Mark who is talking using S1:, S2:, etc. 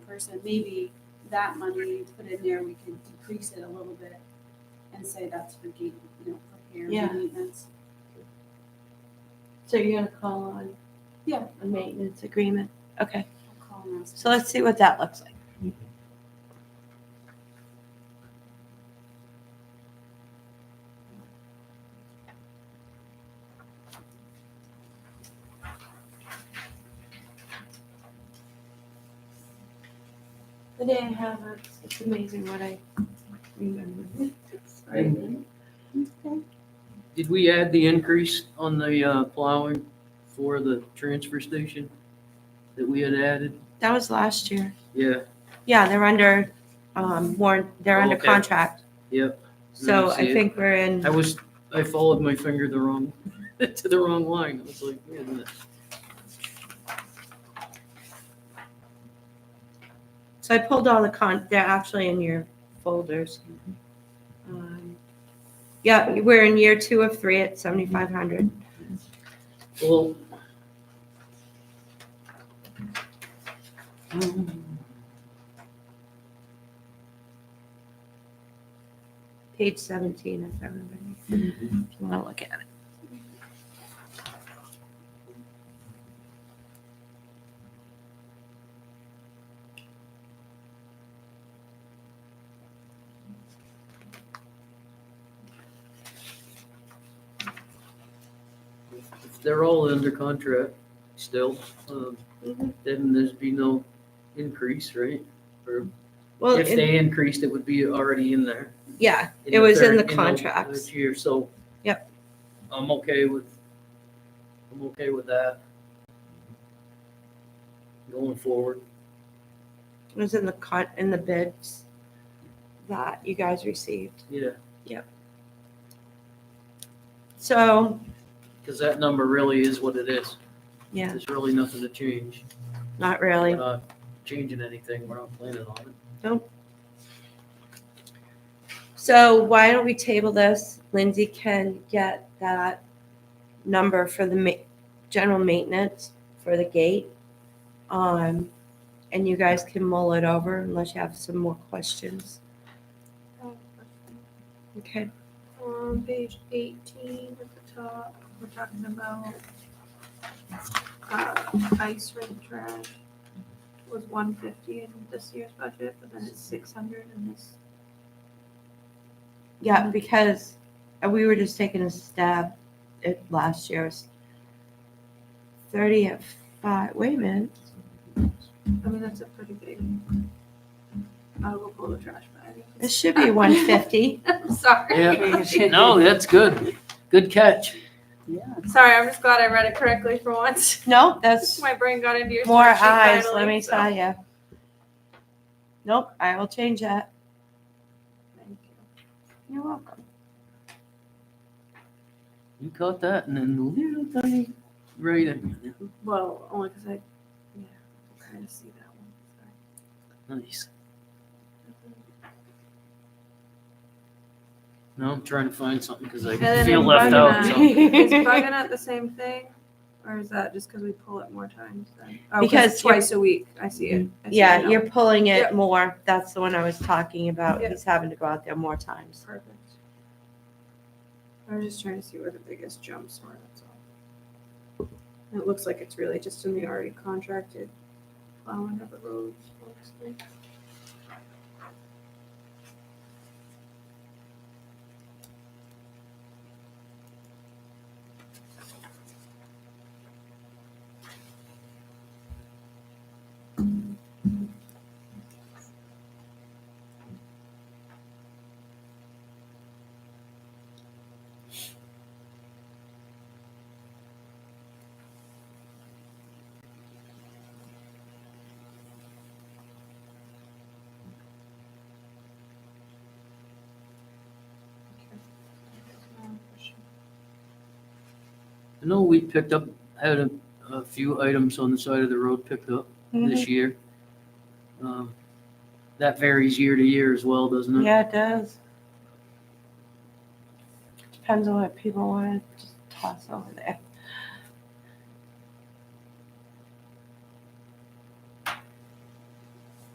S1: person, maybe that money put in there, we can decrease it a little bit and say that's for gate, you know, for care
S2: Yeah.
S1: and maintenance.
S2: So you're gonna call on?
S1: Yeah.
S2: A maintenance agreement, okay,
S1: I'll call and ask.
S2: so let's see what that looks like. The day I have it, it's amazing what I remember. Okay.
S3: Did we add the increase on the uh, plowing for the transfer station that we had added?
S2: That was last year,
S3: Yeah,
S2: yeah, they're under, um, warrant, they're under
S3: Okay.
S2: contract,
S3: yep.
S2: so
S3: I see
S2: I
S3: it.
S2: think we're in.
S3: I was, I followed my finger the wrong, to the wrong line. I was like, wait a minute.
S2: So I pulled all the con, they're actually in your folders. Um, Yeah, we're in year two of three at seventy-five hundred.
S3: Well. um,
S2: page 17 if everybody if you want to look at it
S3: if They're all under contract still, um,
S2: Mhm.
S3: then there'd be no increase, right? Or
S2: well
S3: if
S2: it-
S3: they increased, it would be already in there.
S2: yeah It was in
S3: third-
S2: the contracts.
S3: third Year, so.
S2: Yep.
S3: I'm okay with, I'm okay with that. Going forward,
S2: it was in the con in the bids that you guys received
S3: yeah,
S2: so
S3: because that number really is what it is.
S2: yeah
S3: There's really nothing to change.
S2: not
S3: We're
S2: really
S3: not changing anything, we're not planning on it.
S2: so why don't we table this lindsay can get that number for the ma- general maintenance for the gate um and you guys can mull it over unless you have some more questions okay
S4: On page eighteen at the top, we're talking about uh, ice rink trash was one fifty in this year's budget, but then it's six hundred in this.
S2: Yeah, because uh, we were just taking a stab at last year's thirty at five. Wait a minute.
S4: I mean, that's a pretty big. I'll go pull the trash bag.
S2: This should be one fifty.
S4: I'm sorry.
S3: Yeah. No, that's good, good catch.
S4: Sorry, I'm just glad I read it correctly for once.
S2: No, that's
S4: My brain got into your.
S2: more
S4: spreadsheet
S2: eyes, let
S4: finally,
S2: me
S4: so-
S2: tell you. Nope, I will change that.
S4: Thank you.
S2: You're welcome.
S3: You caught that and then the little tiny writing,
S4: Well, only because I, yeah, I kind of see that one. Sorry.
S3: nice. Now I'm trying to find something because I
S4: then
S3: feel
S4: I'm
S3: left out,
S4: bugging
S3: so.
S4: Is bugging out the same thing, or is that just because we pull it more times? Then? Oh,
S2: Because Mm-hmm.
S4: it's twice a week, I see it. I see it
S2: Yeah,
S4: now.
S2: you're pulling it
S4: Yep.
S2: more. That's the one I was talking about.
S4: Yeah.
S2: He's having to go out there more times.
S4: perfect. I was just trying to see where the biggest jumps were. That's all. And it looks like it's really just in the already contracted plowing of the roads. mostly.
S3: I know we picked up, had a, a few items on the side of the road picked up
S2: Mhm.
S3: this year. Um, That varies year to year as well, doesn't it?
S2: Yeah, it does. Depends on what people want to just toss over there.